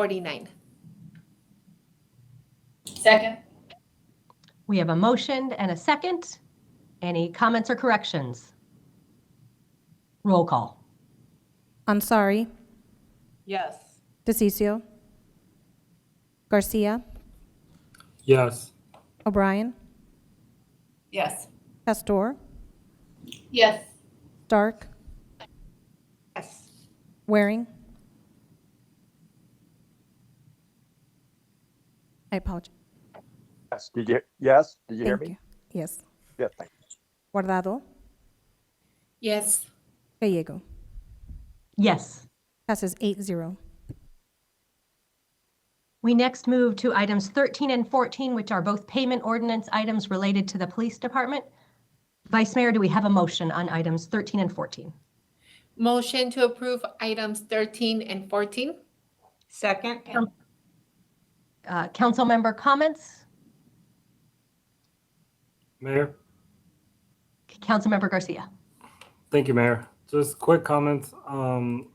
49. Second. We have a motion and a second. Any comments or corrections? Roll call. Ansari, Yes. DeCiccio, Garcia, Yes. O'Brien, Yes. Pastor, Yes. Stark, Yes. Waring. I apologize. Yes, did you, yes, did you hear Thank me? you. Yes. Yes, thank you. Guardado, Yes. Gallego. Yes. Passes 8-0. We next move to items 13 and 14, which are both payment ordinance items related to the police department. Vice Mayor, do we have a motion on items 13 and 14? Motion to approve items 13 and 14? Second, Uh, Council member comments? Mayor? Councilmember Garcia. Thank you, Mayor. Just quick comments. Um,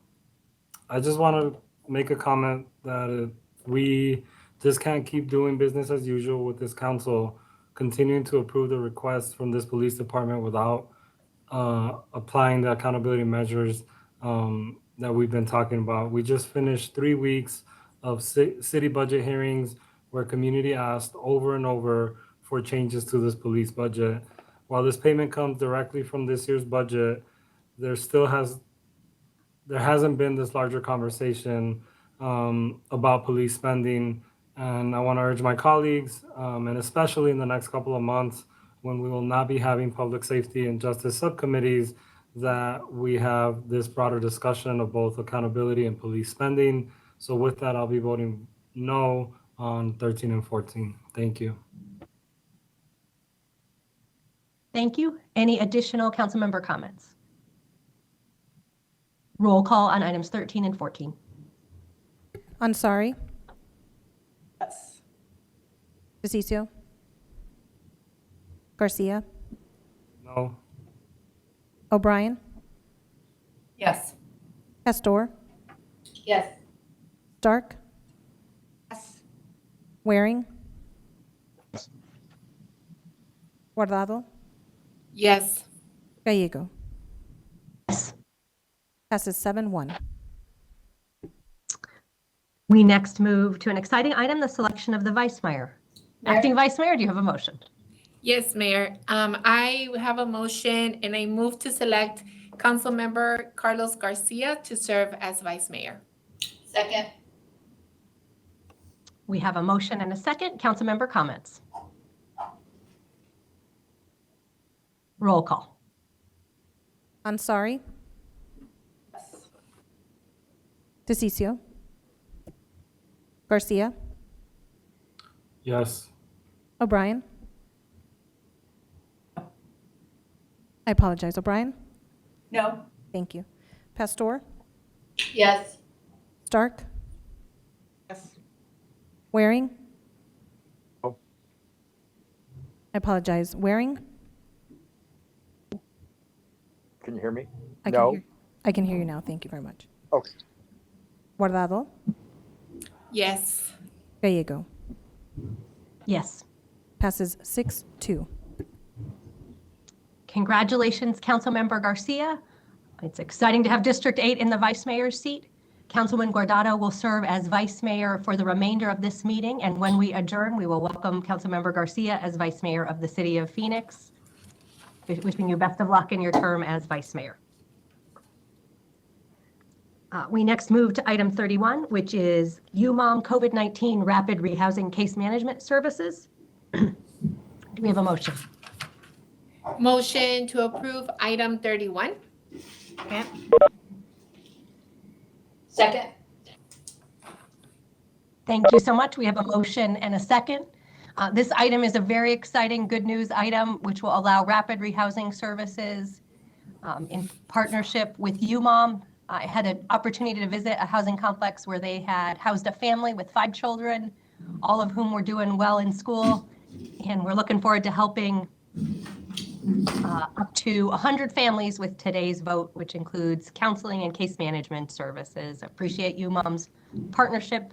I just want to make a comment that uh, we just can't keep doing business as usual with this council, continuing to approve the requests from this police department without uh, applying the accountability measures um, that we've been talking about. We just finished three weeks of ci- city budget hearings where community asked over and over for changes to this police budget. While this payment comes directly from this year's budget, there still has there hasn't been this larger conversation um, about police spending. And I want to urge my colleagues, um, and especially in the next couple of months, when we will not be having public safety and justice subcommittees, that we have this broader discussion of both accountability and police spending. So with that, I'll be voting no on 13 and 14. Thank you. Thank you. Any additional council member comments? Roll call on items 13 and 14. Ansari, Yes. DeCiccio, Garcia, No. O'Brien, Yes. Pastor, Yes. Stark, Yes. Waring, Guardado, Yes. Gallego. Yes. Passes 7-1. We next move to an exciting item, the selection of the vice mayor. Acting Vice Mayor, do you have a motion? Yes, Mayor. Um, I have a motion and I move to select Councilmember Carlos Garcia to serve as Vice Mayor. Second. We have a motion and a second. Councilmember comments? Roll call. Ansari, DeCiccio, Garcia, Yes. O'Brien. I apologize, O'Brien. No. Thank you. Pastor, Yes. Stark, Yes. Waring. I No. apologize, Waring. Can you hear me? I can No? hear- I can hear you now. Thank you very much. Okay. Guardado, Yes. Gallego. Yes. Passes 6-2. Congratulations, Councilmember Garcia. It's exciting to have District 8 in the Vice Mayor's seat. Councilman Guardado will serve as Vice Mayor for the remainder of this meeting, and when we adjourn, we will welcome Councilmember Garcia as Vice Mayor of the City of Phoenix. Wishing you best of luck in your term as Vice Mayor. Uh, We next move to item 31, which is UMOM COVID-19 Rapid Rehousing Case Management Services. Do we have a motion? Motion to approve item 31? second, Second. Thank you so much. We have a motion and a second. Uh, This item is a very exciting, good news item, which will allow rapid rehousing services um, in partnership with UMOM. I had an opportunity to visit a housing complex where they had housed a family with five children, all of whom were doing well in school. And we're looking forward to helping uh, up to 100 families with today's vote, which includes counseling and case management services. Appreciate UMOM's partnership